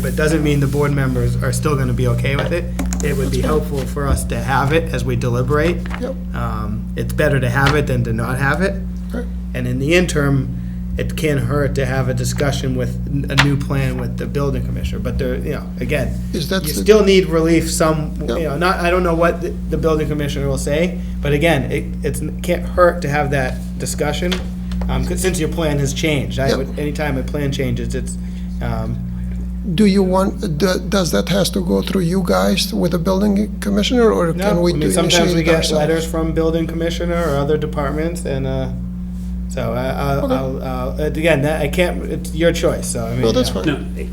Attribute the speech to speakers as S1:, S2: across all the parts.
S1: But doesn't mean the board members are still gonna be okay with it. It would be helpful for us to have it as we deliberate.
S2: Yep.
S1: Um, It's better to have it than to not have it.
S2: Right.
S1: And in the interim, it can't hurt to have a discussion with n- a new plan with the building commissioner, but there, you know, again, you
S2: Is that the-
S1: still need relief some, you
S2: Yep.
S1: know, not, I don't know what the- the building commissioner will say, but again, it, it's, can't hurt to have that discussion, um, 'cause since your plan has changed, I
S2: Yep.
S1: would, anytime a plan changes, it's, um,
S2: Do you want, do- does that has to go through you guys with the building commissioner, or can
S1: no,
S2: we
S1: I mean,
S2: do
S1: sometimes we
S2: initiate it
S1: get letters
S2: ourselves?
S1: from building commissioner or other departments, and, uh, so, I, I'll,
S2: Okay.
S1: I'll, I'll- uh, again, that, I can't, it's your choice, so, I mean.
S2: No, that's
S1: yeah.
S2: fine.
S3: No,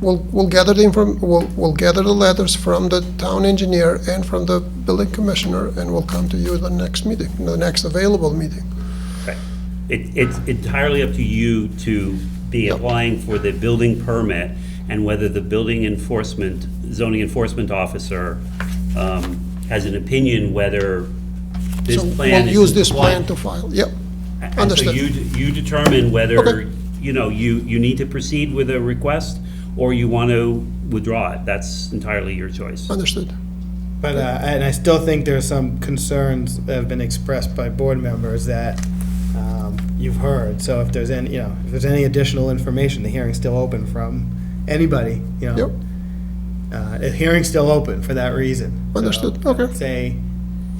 S2: We'll, we'll gather the inform, we'll, we'll gather the letters from the town engineer and from the building commissioner, and we'll come to you at the next meeting, the next available meeting.
S3: it- it's entirely up to you to be applying for the building permit and whether the building enforcement, zoning enforcement officer um, has an opinion whether this
S2: So
S3: plan
S2: we'll
S3: is
S2: use this plan
S3: compliant.
S2: to file, yep.
S3: And so
S2: understood.
S3: you, d- you determine whether,
S2: Okay.
S3: you know, you, you need to proceed with a request or you want to withdraw it. That's entirely your choice.
S2: Understood.
S1: But, uh, and I still think there's some concerns that have been expressed by board members that, um, you've heard. So if there's any, you know, if there's any additional information, the hearing's still open from anybody, you know.
S2: Yep.
S1: Uh, the hearing's still open for that reason. So
S2: Understood. Okay.
S1: I'd Say,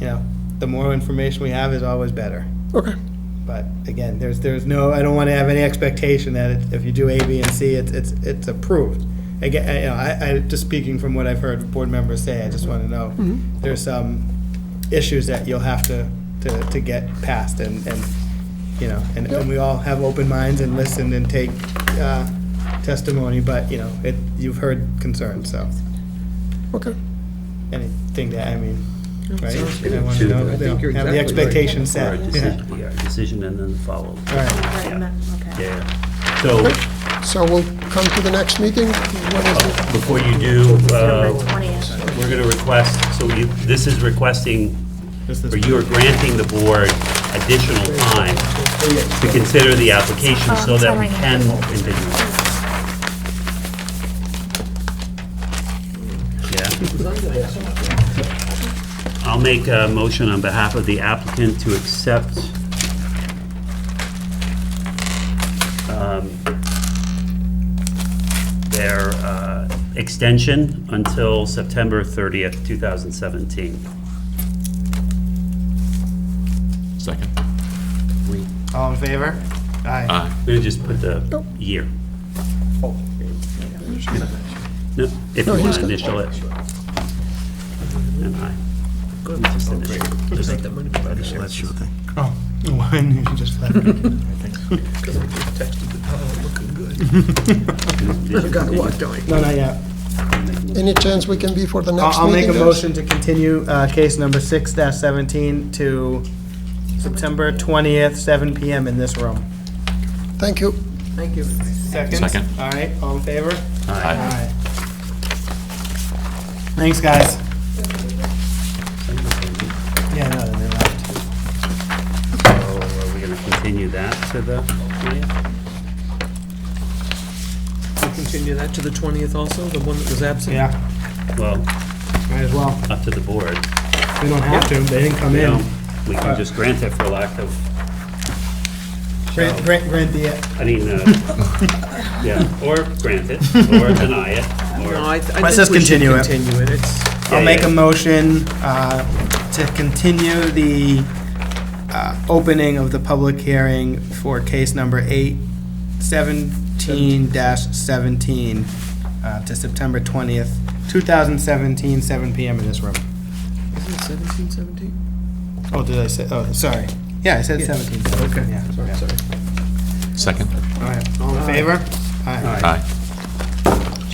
S1: you know, the more information we have is always better.
S2: Okay.
S1: But again, there's, there's no, I don't want to have any expectation that it- if you do A, B, and C, it's, it's, it's approved. Again, I- you know, I, I, just speaking from what I've heard board members say, I just want to know, there's some issues that you'll have to, to, to get past and, and, you know, and, and we all have open minds and listen and take, uh, testimony, but, you know, it, you've heard concerns, so,
S2: Okay.
S1: anything that, I mean, right?
S4: sounds good.
S1: I want to know,
S4: I think
S1: you
S4: you're
S1: know, have the
S4: exactly right.
S1: expectation
S3: Or a
S1: set, yeah,
S3: decision, yeah, a decision and then follow.
S1: all right.
S3: Yeah.
S4: Right, no, okay.
S3: Yeah. So
S2: So we'll come to the next meeting. When is it?
S3: before you do, uh,
S4: November 20th.
S3: We're going to request, so you- this is requesting,
S1: This is-
S3: or you are granting the board additional time to consider the application so that we can continue. Yeah. I'll make a motion on behalf of the applicant to accept um, their uh, extension until September 30th, 2017.
S5: Second.
S1: All in favor? Aye.
S3: I'm gonna just put the year. No, if you
S2: Oh. No,
S3: want
S2: he's
S3: to
S2: got-
S3: initial it. And I. Just initial. Just like that.
S1: Oh, one, you just left. No, not yet.
S2: Any chance we can be for the next
S1: I'll,
S2: meeting?
S1: I'll make a
S2: guys?
S1: motion to continue, uh, case number six dash seventeen to September twentieth, seven PM in this room.
S2: Thank you.
S1: Second?
S5: Second.
S1: All right, all in favor?
S5: Aye.
S1: Aye. Thanks, guys. Yeah, no, then they left.
S3: So Oh, are we gonna continue that to the 20th?
S6: Continue that to the 20th also, the one that was absent?
S1: Yeah,
S3: Well,
S1: might as well.
S3: up to the board.
S1: We don't have to, they didn't come
S3: You
S1: in.
S3: know, we can just grant it for lack of,
S1: Grant, grant, grant the,
S3: I mean, uh, yeah, or grant it, or deny it, or.
S6: No, I th- I
S1: Let's
S6: think
S1: just
S6: we should
S1: continue it.
S6: continue it. It's,
S1: I'll
S3: Yeah,
S1: make a
S3: yeah.
S1: motion uh, to continue the uh, opening of the public hearing for case number eight seventeen dash seventeen uh, to September twentieth, two thousand seventeen, seven PM in this room.
S6: isn't it 17, 17?
S1: Oh, did I say, oh, sorry. Yeah, I said
S6: Yeah.
S1: seventeen. Okay. Yeah,
S6: Sorry, sorry.
S5: Second.
S1: all right. All in favor? Aye.
S5: Aye.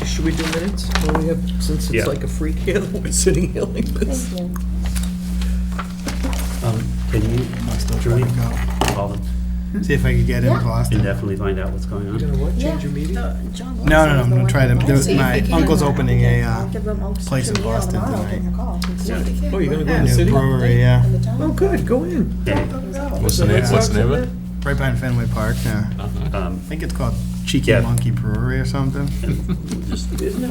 S6: Should we do minutes? Well, we have, since
S3: Yeah.
S6: it's like a freak here, we're sitting here like this.
S3: Um, Can you, Drew, call them
S1: See if I could get in Boston.
S3: and definitely find out what's going
S6: You
S3: on?
S6: know what, change your meeting?
S1: No, no, no, I'm gonna try to, there was my uncle's opening a uh, place
S7: place
S1: in Boston tonight.
S6: Oh, you're gonna go in the
S1: new
S6: city?
S1: brewery, yeah,
S6: Oh, good, go in.
S3: Okay.
S5: What's the name, what's the name of it?
S1: right behind Fenway Park, yeah.
S3: Um,
S1: I think it's called Cheeky
S3: Yeah.
S1: Monkey Brewery or something?
S3: Just-